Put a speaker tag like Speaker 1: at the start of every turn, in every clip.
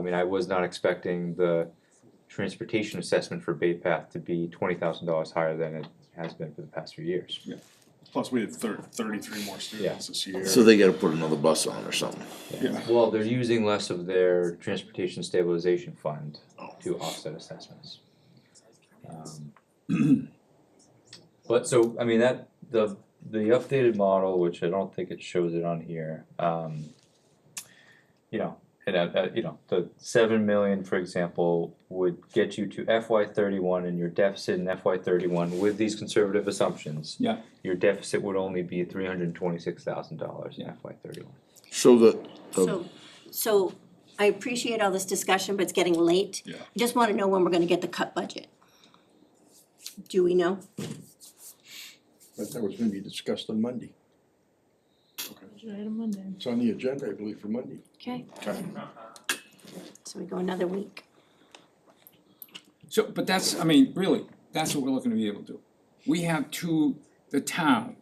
Speaker 1: mean, I was not expecting the transportation assessment for Bay Path to be twenty thousand dollars higher than it has been for the past few years.
Speaker 2: Plus, we had thir- thirty-three more students this year.
Speaker 3: So they gotta put another bus on or something.
Speaker 2: Yeah.
Speaker 1: Well, they're using less of their transportation stabilization fund to offset assessments. Um, But so, I mean, that, the, the updated model, which I don't think it shows it on here, um, you know, it, uh, uh, you know, the seven million, for example, would get you to FY thirty-one and your deficit in FY thirty-one with these conservative assumptions.
Speaker 4: Yeah.
Speaker 1: Your deficit would only be three hundred and twenty-six thousand dollars in
Speaker 4: Yeah.
Speaker 1: FY thirty-one.
Speaker 3: So the, the,
Speaker 5: So, so I appreciate all this discussion, but it's getting late.
Speaker 2: Yeah.
Speaker 5: I Just wanna know when we're gonna get the cut budget. Do we know?
Speaker 6: But that was gonna be discussed on Monday.
Speaker 7: Item Monday.
Speaker 6: It's on the agenda, I believe, for Monday.
Speaker 5: Okay,
Speaker 2: Okay.
Speaker 5: so we go another week.
Speaker 4: So, but that's, I mean, really, that's what we're looking to be able to do. We have two, the town,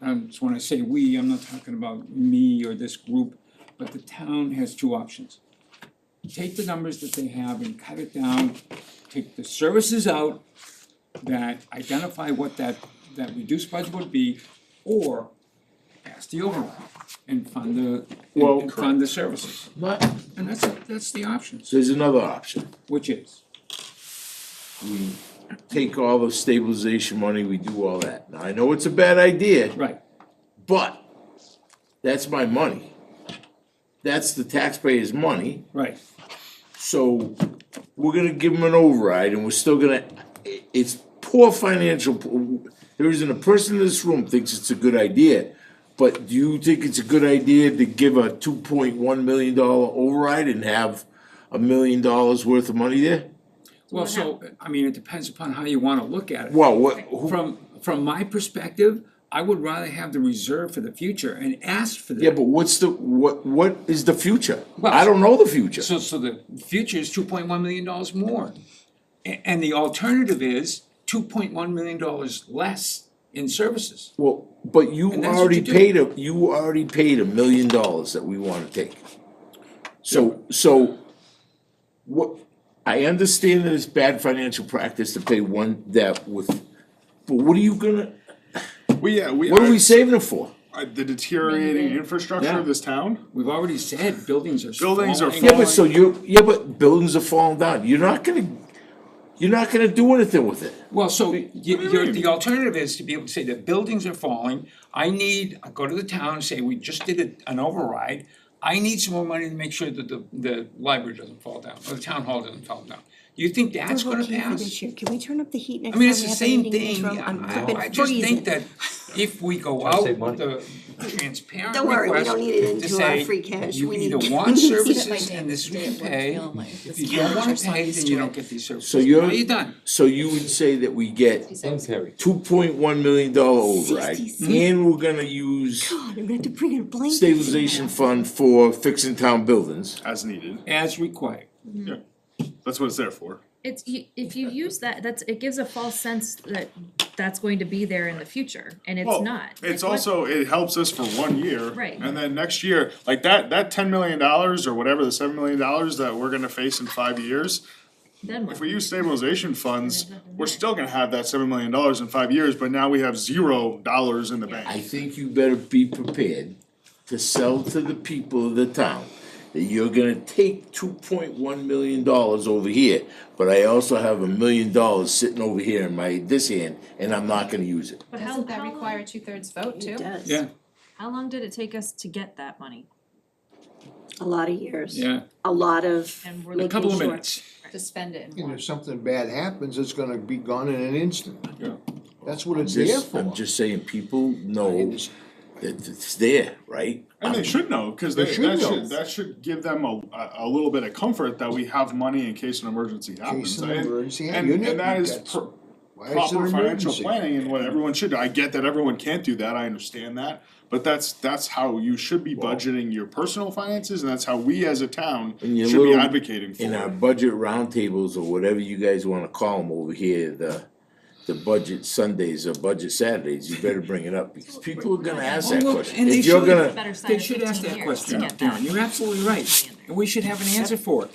Speaker 4: and so when I say we, I'm not talking about me or this group, but the town has two options. Take the numbers that they have and cut it down, take the services out that identify what that, that reduced budget would be, or pass the override and fund the,
Speaker 2: Well,
Speaker 4: and fund the services.
Speaker 3: but
Speaker 4: And that's, that's the options,
Speaker 3: there's another option.
Speaker 4: which is,
Speaker 3: We take all the stabilization money, we do all that. Now, I know it's a bad idea,
Speaker 4: right,
Speaker 3: but that's my money. That's the taxpayers' money,
Speaker 4: right.
Speaker 3: so we're gonna give them an override and we're still gonna, i- it's poor financial, p- there isn't a person in this room thinks it's a good idea. But do you think it's a good idea to give a two point one million dollar override and have a million dollars worth of money there?
Speaker 4: Well, so, I mean, it depends upon how you wanna look at it.
Speaker 3: Well, what, who-
Speaker 4: From, from my perspective, I would rather have the reserve for the future and ask for the.
Speaker 3: yeah, but what's the, what, what is the future?
Speaker 4: Well-
Speaker 3: I don't know the future.
Speaker 4: So, so the future is two point one million dollars more. A- And, the alternative is two point one million dollars less in services.
Speaker 3: Well, but you
Speaker 4: And that's what
Speaker 3: already
Speaker 4: you do.
Speaker 3: paid a, you already paid a million dollars that we wanna take. So, so, what, I understand that it's bad financial practice to pay one debt with, but what are you gonna,
Speaker 2: We, yeah, we,
Speaker 3: what are
Speaker 2: I-
Speaker 3: we saving it for?
Speaker 2: I- the deteriorating infrastructure
Speaker 3: Yeah.
Speaker 2: of this town,
Speaker 4: We've already said buildings are
Speaker 2: Buildings are
Speaker 4: falling.
Speaker 3: Yeah, but so you, yeah, but buildings are falling down, you're not gonna, you're not gonna do anything with it.
Speaker 4: Well, so you, you're, the alternative is to be able to say the buildings are falling, I need, I go to the town, and say, we just did a- an override. I need some more money to make sure that the, the library doesn't fall down, or the town hall doesn't fall down. You think that's gonna
Speaker 5: Okay, for
Speaker 4: pass?
Speaker 5: this year. Can we turn up the heat next
Speaker 4: I
Speaker 5: time we
Speaker 4: mean, it's the
Speaker 5: have a
Speaker 4: same
Speaker 5: meeting in this
Speaker 4: thing,
Speaker 5: room? I'm
Speaker 4: I,
Speaker 5: flipping
Speaker 4: I just think
Speaker 5: freezing.
Speaker 4: that if we go
Speaker 1: to
Speaker 4: out
Speaker 1: save
Speaker 4: with
Speaker 1: money.
Speaker 4: the transparent
Speaker 5: Don't worry, we
Speaker 4: request
Speaker 5: don't need it
Speaker 4: to
Speaker 5: into our
Speaker 4: say,
Speaker 5: free cash.
Speaker 4: you
Speaker 5: We
Speaker 4: either
Speaker 5: need-
Speaker 4: want
Speaker 5: See, that
Speaker 4: services and this is what you pay, if you don't wanna pay, then you don't get these services.
Speaker 3: So you're-
Speaker 4: Well, you're done.
Speaker 3: So you would say that we get
Speaker 1: Terry.
Speaker 3: two point one million dollar override, and we're gonna use
Speaker 5: God, Oh, I'm gonna have to bring in a blanket.
Speaker 3: stabilization fund for fixing town buildings.
Speaker 2: as needed,
Speaker 4: as required.
Speaker 7: Mm-hmm.
Speaker 2: that's what it's there for.
Speaker 7: It's, you- if you use that, that's, it gives a false sense that that's going to be there in the future, and it's
Speaker 2: Well,
Speaker 7: not.
Speaker 2: It's
Speaker 7: Like, what-
Speaker 2: also, it helps us for one year.
Speaker 7: Right.
Speaker 2: And then next year, like that, that ten million dollars or whatever, the seven million dollars that we're gonna face in five years,
Speaker 7: Then what?
Speaker 2: if we use stabilization funds,
Speaker 7: There's nothing
Speaker 2: we're
Speaker 7: there.
Speaker 2: still gonna have that seven million dollars in five years, but now we have zero dollars in the
Speaker 3: I
Speaker 2: bank.
Speaker 3: think you better be prepared to sell to the people of the town that you're gonna take two point one million dollars over here, but I also have a million dollars sitting over here in my, this hand, and I'm not gonna use it.
Speaker 7: But how,
Speaker 8: Doesn't that
Speaker 7: how
Speaker 8: require a
Speaker 7: long,
Speaker 8: two-thirds vote too?
Speaker 5: It does.
Speaker 7: how long did it take us to get that money?
Speaker 5: A lot of years.
Speaker 4: Yeah.
Speaker 5: A lot of
Speaker 7: And we're
Speaker 4: A
Speaker 5: making
Speaker 7: looking,
Speaker 4: couple of
Speaker 5: sure.
Speaker 4: minutes.
Speaker 8: To spend it in
Speaker 6: And
Speaker 8: one.
Speaker 6: if something bad happens, it's gonna be gone in an instant.
Speaker 4: Yeah.
Speaker 6: That's what it's there
Speaker 3: Just,
Speaker 6: for.
Speaker 3: I'm just saying, people know that it's there, right?
Speaker 2: And they should know, cause they,
Speaker 6: They should
Speaker 2: that
Speaker 6: know.
Speaker 2: should, that should give them a, a, a little bit of comfort that we have money in case an emergency happens.
Speaker 6: Case of
Speaker 2: I-
Speaker 6: emergency,
Speaker 2: And,
Speaker 6: unit,
Speaker 2: and that is
Speaker 6: that's-
Speaker 2: per-
Speaker 6: Why is it
Speaker 2: proper
Speaker 6: an
Speaker 2: financial
Speaker 6: emergency?
Speaker 2: planning and what everyone should do. I get that everyone can't do that, I understand that. But that's, that's how you should be budgeting your personal finances and that's how we as a town should
Speaker 3: In your
Speaker 2: be
Speaker 3: little-
Speaker 2: advocating for
Speaker 3: in our
Speaker 2: it.
Speaker 3: budget roundtables or whatever you guys wanna call them over here, the, the budget Sundays or budget Saturdays, you better bring it up, because people are gonna ask that
Speaker 4: Oh, well,
Speaker 3: question.
Speaker 4: and they
Speaker 3: If you're
Speaker 4: should.
Speaker 3: gonna,
Speaker 7: better side
Speaker 4: They
Speaker 7: of
Speaker 4: should ask that
Speaker 7: fifteen years to
Speaker 4: question,
Speaker 7: get that.
Speaker 4: Darren, you're absolutely right, and we should have an answer for it.